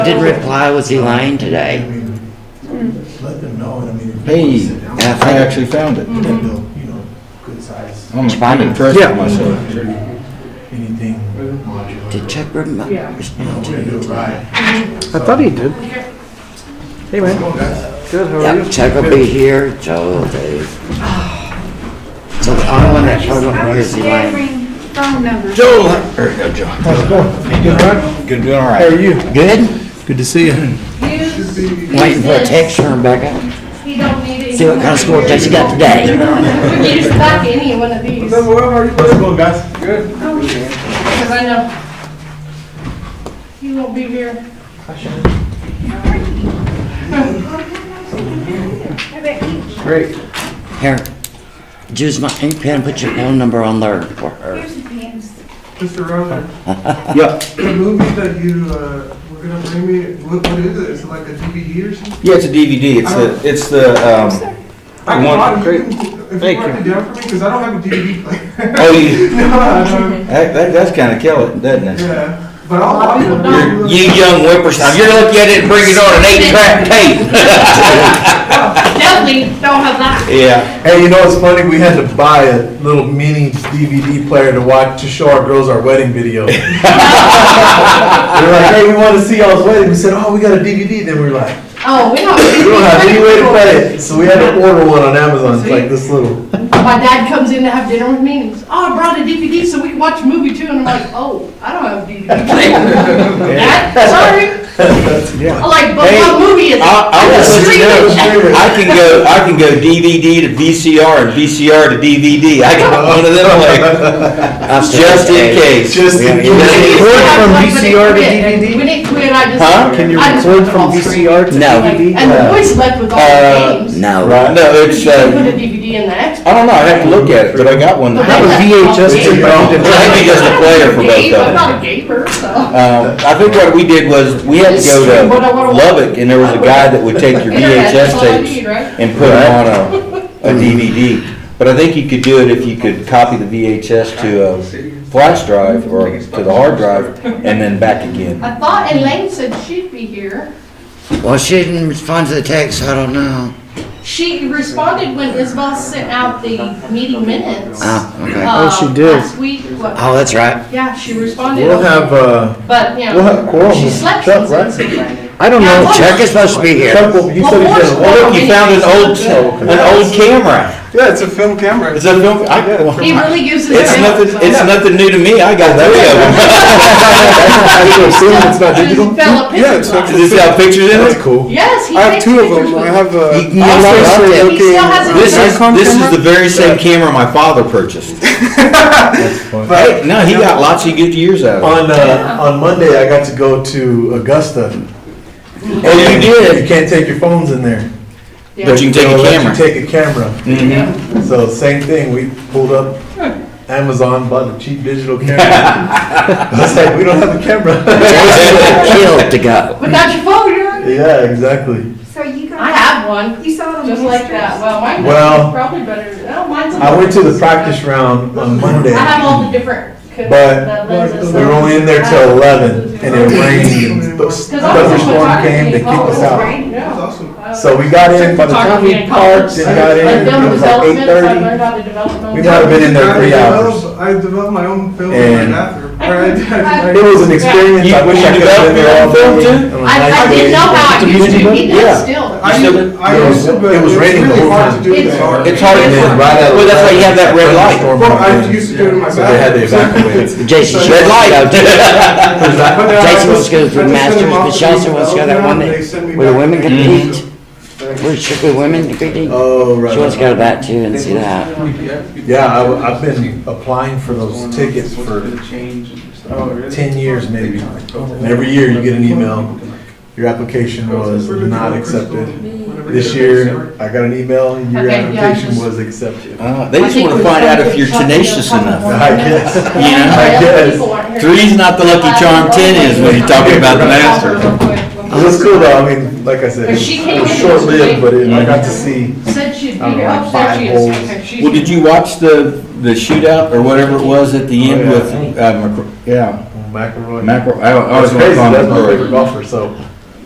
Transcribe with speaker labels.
Speaker 1: Didn't reply, was he lying today?
Speaker 2: Let them know, and I mean. if they wanna
Speaker 3: Hey,
Speaker 2: sit down,
Speaker 3: I actually found it.
Speaker 2: Then they'll, you know, good size,
Speaker 3: I'm
Speaker 1: Responded.
Speaker 3: impressed
Speaker 4: Yeah.
Speaker 3: with myself.
Speaker 2: anything modular.
Speaker 1: Did Chuck rem-
Speaker 5: Yeah.
Speaker 2: You know,
Speaker 1: respond
Speaker 2: we're
Speaker 1: to
Speaker 2: gonna do
Speaker 1: you?
Speaker 2: it right.
Speaker 4: I thought he did. Hey, man.
Speaker 2: Well, that's-
Speaker 4: Good, how are you?
Speaker 1: Yeah, Chuck will be here, Joe will be. So the only one that showed up
Speaker 5: I
Speaker 1: here is
Speaker 5: was
Speaker 1: he lying.
Speaker 5: gathering phone numbers.
Speaker 3: There you go, Joe.
Speaker 4: Good, bud.
Speaker 3: Good, doing all
Speaker 4: How are
Speaker 3: right.
Speaker 4: you?
Speaker 1: Good?
Speaker 2: Good to see you.
Speaker 5: You-
Speaker 1: Waiting for a
Speaker 5: use
Speaker 1: text
Speaker 5: this.
Speaker 1: from Rebecca.
Speaker 5: You don't need it.
Speaker 1: See what kind of score test you got today.
Speaker 5: You just like any one of these, because
Speaker 2: How's it going, guys?
Speaker 5: I know you won't be here.
Speaker 4: Great.
Speaker 1: Here, use my ink pen, put your phone number on there for her.
Speaker 5: Here's the pins.
Speaker 6: Mr. Rosen,
Speaker 3: Yeah,
Speaker 6: the movie that you uh, were gonna bring me, what, what is it? Is it like a DVD or something?
Speaker 3: yeah, it's a DVD. It's the, it's the, um,
Speaker 6: I can
Speaker 3: want-
Speaker 6: buy it.
Speaker 4: great.
Speaker 6: You can- If
Speaker 4: Thank
Speaker 6: you write it
Speaker 4: you.
Speaker 6: down for me, because I don't have a DVD player.
Speaker 3: oh, you,
Speaker 6: No, I don't.
Speaker 3: that, that does kind of kill it, doesn't it?
Speaker 6: Yeah, but I'll buy it.
Speaker 5: You're-
Speaker 3: You young whippersnapper, you're looking at it and bringing on an eight-track tape.
Speaker 5: Definitely don't have that.
Speaker 3: Yeah,
Speaker 7: Hey, you know what's funny? We had to buy a little mini DVD player to watch to show our girls our wedding video. they were like, "Hey, we want to see y'all's wedding." We said, "Oh, we got a DVD." Then we were like,
Speaker 5: Oh, we don't.
Speaker 7: "We don't have any way to play it," so we had to order one on Amazon. It's like this little.
Speaker 5: My dad comes in to have dinner with me and he's, oh, I brought a DVD so we can watch a movie too. And I'm like, oh, I don't have a DVD player. Dad, sorry. I'm like, but what movie is it?
Speaker 3: I'll, I'll just let you know,
Speaker 7: Streaming.
Speaker 3: I can go, I can go DVD to VCR and VCR to DVD. I can one of them like, just in case.
Speaker 7: Just in
Speaker 3: Yeah, yeah.
Speaker 7: case.
Speaker 4: Record from
Speaker 5: Like, when it
Speaker 4: VCR to
Speaker 5: quit, and
Speaker 4: DVD?
Speaker 5: When it quit, I just.
Speaker 3: Huh?
Speaker 7: Can you
Speaker 5: I just
Speaker 4: Record
Speaker 5: put
Speaker 4: from
Speaker 5: all three.
Speaker 4: VCR to
Speaker 3: No.
Speaker 4: DVD?
Speaker 5: And the boys left with all
Speaker 3: Uh,
Speaker 5: the games.
Speaker 1: No.
Speaker 3: Right, no,
Speaker 5: But
Speaker 3: it's,
Speaker 5: You can put a
Speaker 3: uh,
Speaker 5: DVD in the Xbox.
Speaker 3: I don't know, I have to look at it, but I got one.
Speaker 4: That was VHS
Speaker 5: There you
Speaker 4: to
Speaker 7: go.
Speaker 4: DVD.
Speaker 3: Maybe just a player for both of
Speaker 5: I'm
Speaker 3: them.
Speaker 5: not a gamer, so.
Speaker 3: Um, I think what we did was, we had to go to Lubbock, and there was a guy that would take your
Speaker 5: Internet, that's
Speaker 3: VHS
Speaker 5: all I
Speaker 3: tapes
Speaker 5: need, right?
Speaker 3: and put them on a, a DVD. But I think you could do it if you could copy the VHS to a flash drive or to the hard drive and then back again.
Speaker 5: I thought Elaine said she'd be here.
Speaker 1: Well, she didn't respond to the text, so I don't know.
Speaker 5: She responded when Isabel sent out the meeting minutes.
Speaker 7: Ah,
Speaker 1: Oh, okay.
Speaker 5: uh,
Speaker 4: she did.
Speaker 5: Last week, what-
Speaker 1: Oh, that's right.
Speaker 5: yeah, she responded.
Speaker 7: We'll have uh,
Speaker 5: But, you
Speaker 7: we'll have
Speaker 5: know,
Speaker 7: Coral.
Speaker 5: she slept
Speaker 7: Chuck,
Speaker 5: since
Speaker 7: right?
Speaker 5: then.
Speaker 4: I don't know.
Speaker 1: Chuck is supposed to be here.
Speaker 7: Chuck, will- you
Speaker 5: Well,
Speaker 7: said he
Speaker 5: Coral-
Speaker 7: said,
Speaker 3: Oh,
Speaker 7: "Well,
Speaker 3: look, you found an old, an old camera.
Speaker 6: Yeah, it's a film camera.
Speaker 3: Is that, no- I-
Speaker 5: He really uses it.
Speaker 3: it's nothing, it's nothing new to me, I got three of them.
Speaker 7: I should assume it's not digital."
Speaker 6: Yeah, it's
Speaker 5: Yeah,
Speaker 6: not-
Speaker 3: Does it have pictures in
Speaker 7: That's
Speaker 3: it?
Speaker 7: cool.
Speaker 5: Yes, he
Speaker 6: I have
Speaker 5: takes
Speaker 6: two of
Speaker 5: pictures
Speaker 6: them.
Speaker 5: with
Speaker 6: I
Speaker 5: it.
Speaker 6: have uh, a.
Speaker 3: You can use those
Speaker 6: Also,
Speaker 3: too.
Speaker 6: so-
Speaker 5: He still has it.
Speaker 3: This is,
Speaker 6: Nikon
Speaker 3: this is
Speaker 6: camera?
Speaker 3: the very same camera my father purchased. Hey, no, he got lots of good years out of it.
Speaker 7: On uh, on Monday, I got to go to Augusta.
Speaker 3: Oh, you
Speaker 7: You
Speaker 3: did?
Speaker 7: can't take your phones in there.
Speaker 5: Yeah.
Speaker 3: But you can take a
Speaker 7: They'll let you
Speaker 3: camera.
Speaker 7: Take a camera.
Speaker 3: Mhm.
Speaker 7: So same thing, we pulled up Amazon, bought a cheap digital camera. I was like, we don't have a camera.
Speaker 1: Jason would kill to go.
Speaker 5: Without your phone, you're-
Speaker 7: Yeah, exactly.
Speaker 8: So you
Speaker 5: I
Speaker 8: got,
Speaker 5: have one,
Speaker 8: you saw the.
Speaker 5: just like that. Well, mine
Speaker 7: Well,
Speaker 5: is probably better. No, mine's.
Speaker 7: I went to the practice round on
Speaker 5: I
Speaker 7: Monday.
Speaker 5: have all the different. co-
Speaker 7: But
Speaker 5: the lenses.
Speaker 7: We were only in there till eleven and it rained and the
Speaker 5: Cause I was a
Speaker 7: thunderstorm came to kick us
Speaker 5: photography- oh, it was
Speaker 7: out.
Speaker 5: raining,
Speaker 6: That's
Speaker 5: no.
Speaker 6: awesome.
Speaker 5: I was-
Speaker 7: So we got in, by the time we
Speaker 5: Photography in
Speaker 7: parked and
Speaker 5: college.
Speaker 7: got
Speaker 5: I've
Speaker 7: in,
Speaker 5: done
Speaker 7: it was like eight
Speaker 5: developments, I
Speaker 7: thirty.
Speaker 5: learned how to develop.
Speaker 7: We might have been in there three
Speaker 6: I
Speaker 7: hours.
Speaker 6: developed- I developed my own film in my
Speaker 7: And-
Speaker 6: bathroom. Or I did, I-
Speaker 7: It was an experience, I wish I could have been there all
Speaker 3: You
Speaker 7: day.
Speaker 3: developed
Speaker 7: It was
Speaker 5: I, I
Speaker 7: nice.
Speaker 5: didn't know how I used to. He does
Speaker 7: Yeah.
Speaker 5: still.
Speaker 6: I did- I
Speaker 7: It was-
Speaker 6: used to, but
Speaker 7: it was
Speaker 6: it's
Speaker 7: raining the whole
Speaker 6: really hard
Speaker 7: time.
Speaker 6: to do
Speaker 5: It's
Speaker 6: that.
Speaker 5: hard.
Speaker 3: It's hard to,
Speaker 7: And then right out of
Speaker 3: well, that's why you have that red light.
Speaker 7: thunderstorm
Speaker 6: Well, I
Speaker 7: came in.
Speaker 6: used to do it in my
Speaker 7: So they had to
Speaker 6: bathroom.
Speaker 7: evacuate.
Speaker 1: Jason, she
Speaker 3: Red
Speaker 1: wants to go.
Speaker 7: Because I-
Speaker 6: But then I
Speaker 1: Jason wants
Speaker 6: just-
Speaker 1: to go to the
Speaker 6: I just sent
Speaker 1: Masters,
Speaker 6: them off
Speaker 1: but
Speaker 6: to
Speaker 1: she also
Speaker 6: the
Speaker 1: wants to go to that one
Speaker 6: development, they
Speaker 1: that,
Speaker 6: sent me
Speaker 1: where the
Speaker 6: back
Speaker 1: women
Speaker 6: to
Speaker 1: compete,
Speaker 6: Thanks.
Speaker 1: where strictly women compete.
Speaker 7: Oh, right.
Speaker 1: She wants to
Speaker 7: right.
Speaker 1: go to that too and see that.
Speaker 7: Yeah, I, have been applying for those tickets for ten years maybe. And every year you get an email, your application was not accepted. This year, I got an email, and your
Speaker 5: Okay, yeah,
Speaker 7: application
Speaker 5: just-
Speaker 7: was accepted.
Speaker 3: Uh, They
Speaker 5: I
Speaker 3: just
Speaker 5: think
Speaker 3: want to
Speaker 5: we
Speaker 3: find
Speaker 5: found
Speaker 3: out
Speaker 5: a
Speaker 3: if
Speaker 5: good
Speaker 3: you're
Speaker 5: shot in the
Speaker 3: tenacious
Speaker 5: front
Speaker 3: enough.
Speaker 5: corner.
Speaker 7: I guess.
Speaker 3: You know,
Speaker 7: I guess.
Speaker 3: Three's not the lucky charm, ten is when you're talking about the Masters.
Speaker 7: It was cool though, I mean, like I said,
Speaker 5: But
Speaker 7: it
Speaker 5: she
Speaker 7: was-
Speaker 5: came
Speaker 7: it was
Speaker 5: in
Speaker 7: short-lived, but it- I got to
Speaker 5: and-
Speaker 7: see.
Speaker 5: Said she'd be
Speaker 7: I don't
Speaker 5: here.
Speaker 7: know,
Speaker 5: Oh,
Speaker 7: like
Speaker 5: there
Speaker 7: five
Speaker 5: she is.
Speaker 7: holes.
Speaker 5: Okay, she's
Speaker 3: Well, did you watch the, the shootout or whatever it was at the end
Speaker 7: Oh, yeah.
Speaker 3: with, uh, McCr- yeah,
Speaker 7: McElroy.
Speaker 3: Macro, I I
Speaker 7: It's
Speaker 3: always want to
Speaker 7: crazy,
Speaker 3: call him
Speaker 7: that's my
Speaker 3: McCrory.
Speaker 7: favorite golfer, so